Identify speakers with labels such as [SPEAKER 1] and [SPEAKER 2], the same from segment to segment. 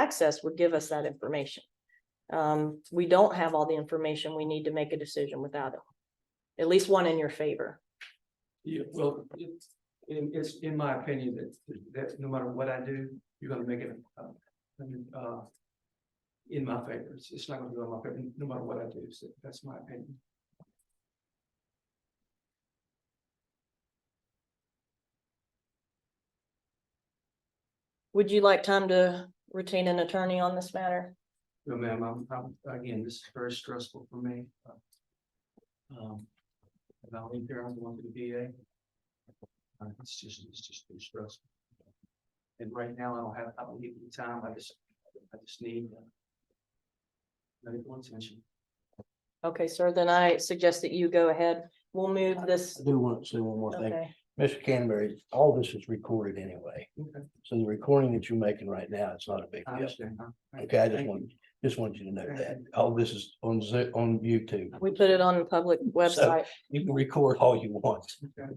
[SPEAKER 1] access would give us that information. Um, we don't have all the information. We need to make a decision without it. At least one in your favor.
[SPEAKER 2] Yeah, well, it's, in, it's in my opinion that, that no matter what I do, you're gonna make it, uh, uh. In my favor, it's, it's not gonna go in my favor, no matter what I do, so that's my opinion.
[SPEAKER 1] Would you like time to retain an attorney on this matter?
[SPEAKER 2] No, ma'am, I'm, I'm, again, this is very stressful for me. Um, and I'll leave here, I'm going to the VA. Uh, it's just, it's just too stressful. And right now, I don't have, I don't need the time, I just, I just need. uh, Medical attention.
[SPEAKER 1] Okay, sir, then I suggest that you go ahead. We'll move this.
[SPEAKER 3] I do want to say one more thing.
[SPEAKER 1] Okay,
[SPEAKER 3] Mr. Canterbury, all this is recorded anyway.
[SPEAKER 2] Okay.
[SPEAKER 3] So the recording that you're making right now, it's not a big
[SPEAKER 2] I
[SPEAKER 3] deal.
[SPEAKER 2] understand. huh?
[SPEAKER 3] Okay, I just
[SPEAKER 2] Thank
[SPEAKER 3] want,
[SPEAKER 2] you.
[SPEAKER 3] just want you to know
[SPEAKER 2] Thank
[SPEAKER 3] that.
[SPEAKER 2] you.
[SPEAKER 3] All this is on Zo- on YouTube.
[SPEAKER 1] we put it on the public website.
[SPEAKER 3] You can record all you want.
[SPEAKER 2] Okay.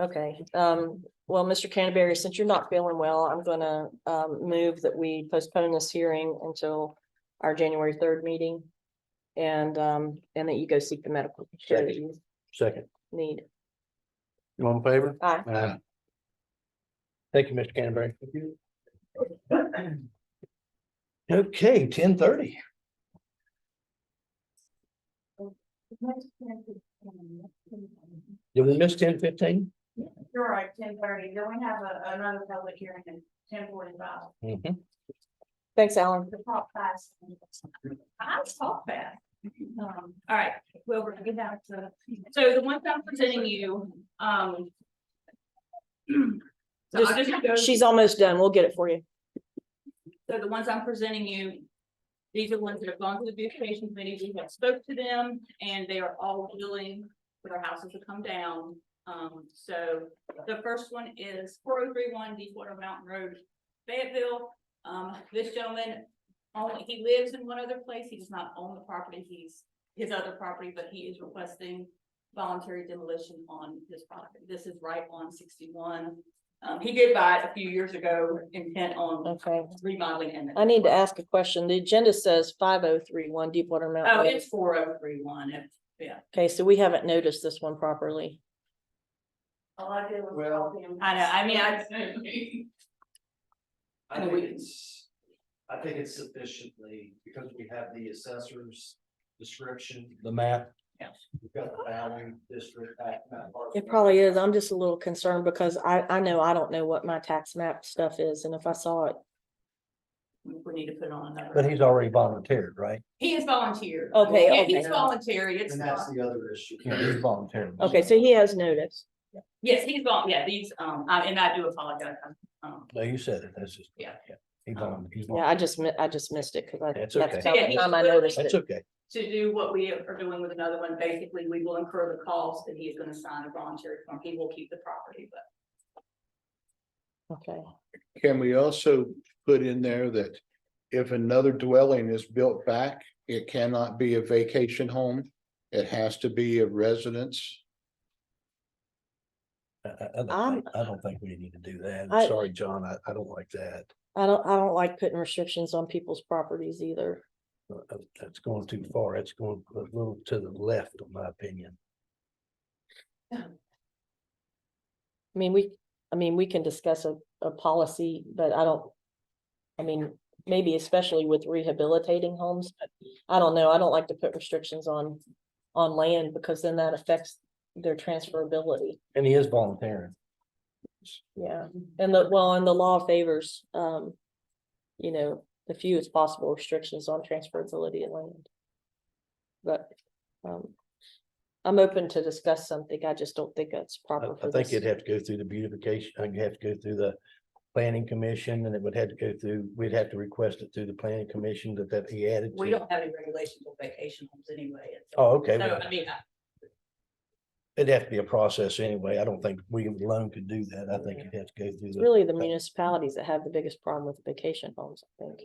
[SPEAKER 1] Okay, um, well, Mr. Canterbury, since you're not feeling well, I'm gonna, um, move that we postpone this hearing until our January third meeting. And, um, and that you go seek the medical care that you
[SPEAKER 3] Second,
[SPEAKER 1] need.
[SPEAKER 3] you on favor?
[SPEAKER 1] Aye.
[SPEAKER 3] Aye. Thank you, Mr. Canterbury. Okay, ten thirty. Did we miss ten fifteen?
[SPEAKER 4] You're right, ten thirty, then we have a, another public hearing at ten forty-five,
[SPEAKER 3] Mm-hmm.
[SPEAKER 1] Thanks, Alan.
[SPEAKER 4] the top class. I was taught that. Um, all right, well, we're gonna get back to, so the ones I'm presenting you, um. So I'll just go-
[SPEAKER 1] She's almost done. We'll get it for you.
[SPEAKER 4] so the ones I'm presenting you, these are ones that have gone to the beautification committee, we have spoke to them, and they are all willing for their houses to come down. Um, so the first one is four oh three one Deepwater Mountain Road, Fayetteville. Um, this gentleman, only, he lives in one other place, he does not own the property, he's his other property, but he is requesting voluntary demolition on his property. This is right on sixty-one. Um, he did buy it a few years ago, intent on
[SPEAKER 1] Okay.
[SPEAKER 4] remodeling and.
[SPEAKER 1] I need to ask a question. The agenda says five oh three one Deepwater Mountain.
[SPEAKER 4] Oh,
[SPEAKER 1] Road.
[SPEAKER 4] it's four oh three one.
[SPEAKER 1] Okay, so we haven't noticed this one properly.
[SPEAKER 4] All I did
[SPEAKER 2] was Well- copy
[SPEAKER 4] I know, I mean, I.
[SPEAKER 5] I
[SPEAKER 4] And
[SPEAKER 5] think
[SPEAKER 4] we-
[SPEAKER 5] it's, I think it's sufficiently, because we have the assessor's description,
[SPEAKER 3] The map.
[SPEAKER 5] we've got the bowing district. that- that part.
[SPEAKER 1] It probably is. I'm just a little concerned because I, I know I don't know what my tax map stuff is and if I saw it.
[SPEAKER 4] We need to put on
[SPEAKER 3] But
[SPEAKER 4] another.
[SPEAKER 3] he's already volunteered, right?
[SPEAKER 4] He is volunteer.
[SPEAKER 1] Okay,
[SPEAKER 4] Yeah,
[SPEAKER 1] okay.
[SPEAKER 4] He's voluntary. It's,
[SPEAKER 5] And that's
[SPEAKER 4] not-
[SPEAKER 5] the other issue.
[SPEAKER 3] Yeah, he's volunteered.
[SPEAKER 1] Okay, so he has noticed.
[SPEAKER 4] yes, he's vol, yeah, these, um, I- and I do apologize. I'm, Um,
[SPEAKER 3] No, you said it. That's just.
[SPEAKER 4] Yeah.
[SPEAKER 3] He volunteered.
[SPEAKER 1] Yeah, I just, mi- I just missed it because I, that's
[SPEAKER 3] That's
[SPEAKER 1] about
[SPEAKER 3] okay.
[SPEAKER 4] Yeah,
[SPEAKER 1] the
[SPEAKER 4] he's
[SPEAKER 1] time I
[SPEAKER 4] literally-
[SPEAKER 1] noticed
[SPEAKER 3] That's
[SPEAKER 1] it.
[SPEAKER 3] okay.
[SPEAKER 4] to do what we are doing with another one, basically, we will incur the cost that he is gonna sign a voluntary form. He will keep the property, but.
[SPEAKER 1] Okay,
[SPEAKER 6] Can we also put in there that if another dwelling is built back, it cannot be a vacation home? It has to be a residence?
[SPEAKER 3] I, I- I don't
[SPEAKER 1] I'm-
[SPEAKER 3] think, I don't think we need to do that.
[SPEAKER 1] Um, I-
[SPEAKER 3] I'm sorry, John. I, I don't like that.
[SPEAKER 1] I don't, I don't like putting restrictions on people's properties either.
[SPEAKER 3] Uh, uh, That's going too far. It's going a little to the left, in my opinion.
[SPEAKER 1] I mean, we, I mean, we can discuss a, a policy, but I don't. I mean, maybe especially with rehabilitating homes, but I don't know, I don't like to put restrictions on, on land because then that affects their transferability.
[SPEAKER 3] And he is volunteering.
[SPEAKER 1] Yeah, and the, well, and the law favors, um, you know, the fewest possible restrictions on transferability of land. But, um, I'm open to discuss something, I just don't think that's
[SPEAKER 3] I,
[SPEAKER 1] proper
[SPEAKER 3] I
[SPEAKER 1] for
[SPEAKER 3] think
[SPEAKER 1] this.
[SPEAKER 3] it'd have to go through the beautification, i would have to go through the planning commission and it would have to go through, we'd have to request it through the planning commission that, that he added.
[SPEAKER 4] We
[SPEAKER 3] to-
[SPEAKER 4] don't have any regulations on vacation homes anyway. it's-
[SPEAKER 3] Oh, okay.
[SPEAKER 4] So,
[SPEAKER 3] well,
[SPEAKER 4] I mean, I-
[SPEAKER 3] It'd have to be a process anyway. I don't think we alone could do that. I think you'd have to go through
[SPEAKER 1] It's
[SPEAKER 3] the.
[SPEAKER 1] really the municipalities that have the biggest problem with vacation homes, I think.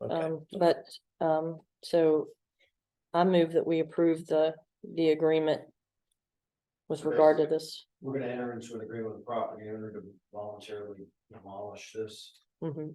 [SPEAKER 3] okay.
[SPEAKER 1] Um, but, um, so I move that we approve the, the agreement with regard to this.
[SPEAKER 5] We're gonna enter into an agreement with the property owner to voluntarily demolish this.
[SPEAKER 1] Mhm.